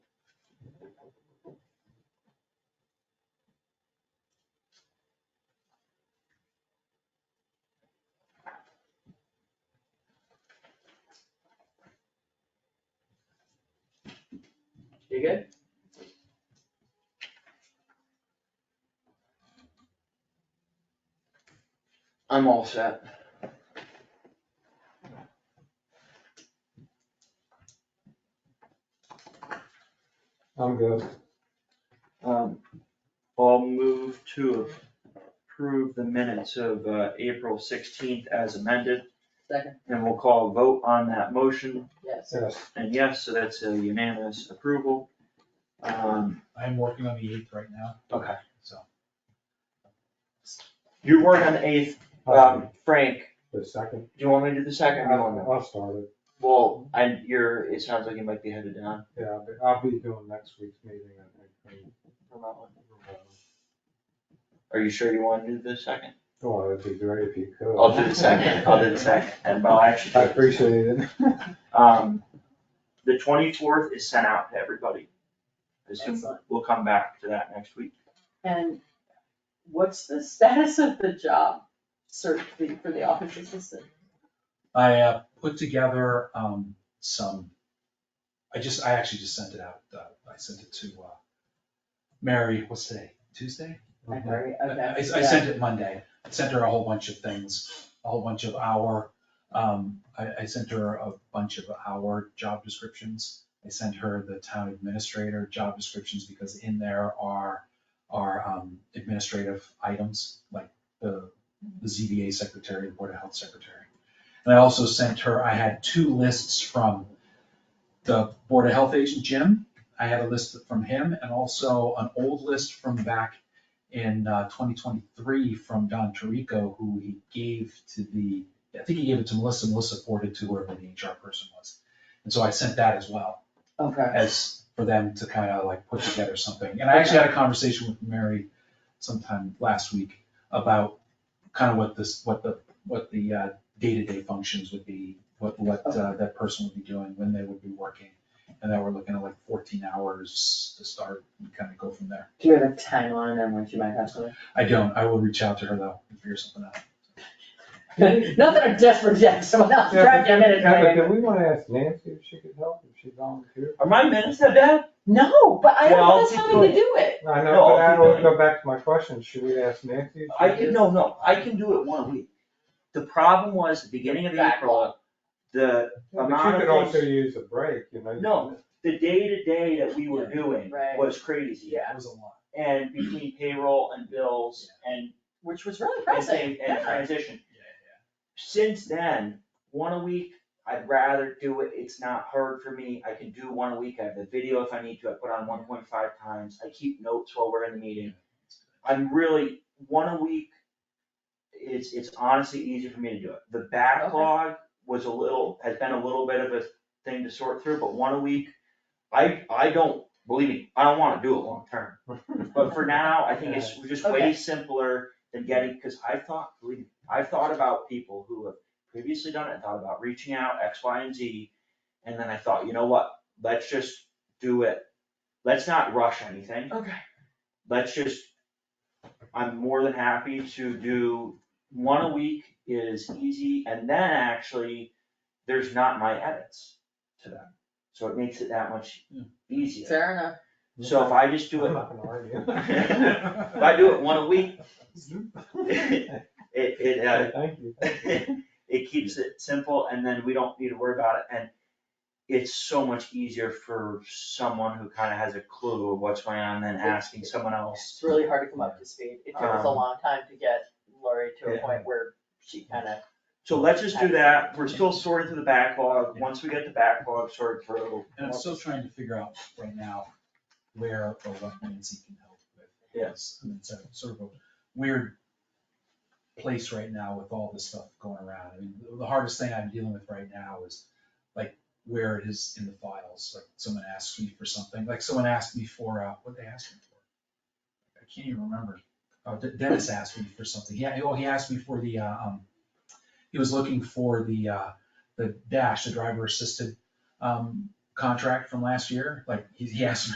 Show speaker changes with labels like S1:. S1: You good?
S2: I'm all set.
S3: I'm good.
S2: Um, I'll move to approve the minutes of, uh, April sixteenth as amended,
S1: Second,
S2: and we'll call a vote on that motion,
S1: yes.
S3: Yes,
S2: and yes, so that's a unanimous approval. Um,
S4: I am working on the eighth right now,
S2: okay,
S4: so.
S2: you weren't on the eighth, um, Frank,
S3: the second.
S2: do you want me to do the second? You want me?
S3: I'll start it,
S2: Well, and you're, it sounds like you might be headed down
S3: yeah, but I'll be doing next week's meeting, I think. and-
S2: from that one. Are you sure you wanna do the second?
S3: Well, it'd Oh, be great if you could.
S2: I'll do the second, I'll do the second, and I'll actually. do
S3: I
S2: it.
S3: appreciate it.
S2: Um, the twenty-fourth is sent out to everybody. This is-
S1: Excellent.
S2: we'll come back to that next week.
S1: And what's the status of the job search for the- for the office assistant?
S4: I uh, put together um, some, I just, I actually just sent it out, uh, I sent it to uh, Mary, what's today, Tuesday?
S3: Uh-huh.
S1: I agree,
S4: I-
S1: okay.
S4: I I sent it Monday, I sent her a whole bunch of things, a whole bunch of our, um, I, I sent her a bunch of our job descriptions. I sent her the town administrator job descriptions because in there are, are um, administrative items, like the, the ZBA secretary, the board of health secretary. And I also sent her, I had two lists from the board of health agent, Jim. I had a list from him and also an old list from back in uh, 2023 from Don Tirico, who he gave to the, I think he gave it to Melissa, Melissa forwarded to whoever the HR person was. And so I sent that as well,
S1: Okay,
S4: as for them to kind of like put together something. And I actually had a conversation with Mary sometime last week about kind of what this, what the, what the uh, day-to-day functions would be, what, what uh, that person would be doing, when they would be working. And then we're looking at like 14 hours to start and kind of go from there.
S1: do you have a timeline on when you might have something?
S4: I don't, I will reach out to her though, and figure something out.
S1: Not that I'm desperate yet, someone else,
S3: Yeah,
S1: grab your minute,
S3: Yeah, but
S1: Diane.
S3: then we wanna ask Nancy if she could help, if she volunteered.
S2: Are my minutes that bad?
S1: No, but I
S2: Yeah,
S1: don't
S2: I'll
S1: think that's
S2: keep
S1: having to
S2: going.
S1: do it.
S3: I
S2: No,
S3: know, but I
S2: I'll
S3: always
S2: keep
S3: go back to my question, should we ask Nancy? if she
S2: I
S3: could?
S2: can, no, no, I can do it one week. The problem was the beginning of April, the,
S3: But
S2: amount
S3: you
S2: of
S3: could also
S2: things-
S3: use a break, you know. you
S2: No.
S3: can-
S2: the day-to-day that we were doing
S1: Right.
S2: was crazy.
S4: That was a lot.
S2: And between payroll and bills and,
S1: Which was really
S2: and
S1: pressing,
S2: thing- and
S1: yeah.
S2: transition.
S4: Yeah,
S2: Since then, one a week, I'd rather do it, it's not hard for me, I can do one a week, I have the video if I need to, I put on one point five times, I keep notes while we're in the meeting. I'm really, one a week, it's, it's honestly easier for me to do it. The backlog was a little, has been a little bit of a thing to sort through, but one a week, I, I don't, believe me, I don't wanna do it long term. But for now, I think it's just
S1: Okay.
S2: way simpler than getting, cause I thought, believe me, I've thought about people who have previously done it, I thought about reaching out, X, Y, and Z. And then I thought, you know what, let's just do it, let's not rush anything,
S1: Okay,
S2: let's just, I'm more than happy to do one a week is easy, and then actually, there's not my edits to them. So it makes it that much
S4: Yeah.
S2: easier.
S1: fair enough.
S2: So if I just do
S3: I'm
S2: it,
S3: not gonna argue.
S2: If I do it one a week, it, it, uh,
S3: Thank you.
S2: it keeps it simple and then we don't need to worry about it and it's so much easier for someone who kinda has a clue of what's going on than asking someone else.
S1: It's really hard to come up to speed. It took us a
S2: Um,
S1: long time to get Lori to a
S2: yeah.
S1: point where she kind of,
S2: So let's just do that, we're still sorting through the backlog, once we get the backlog sorted through.
S4: And I'm still trying to figure out right now where or what Nancy can help with. Yes. And it's a sort of a weird place right now with all this stuff going around. I mean, the- the hardest thing I'm dealing with right now is like where it is in the files. Like someone asks me for something, like someone asked me for, uh, what they asked me for? I can't even remember. Oh, De- Dennis asked me for something. Yeah, oh, he asked me for the, uh, um, he was looking for the, uh, the dash, the driver assisted, um, contract from last year, like he, he asked me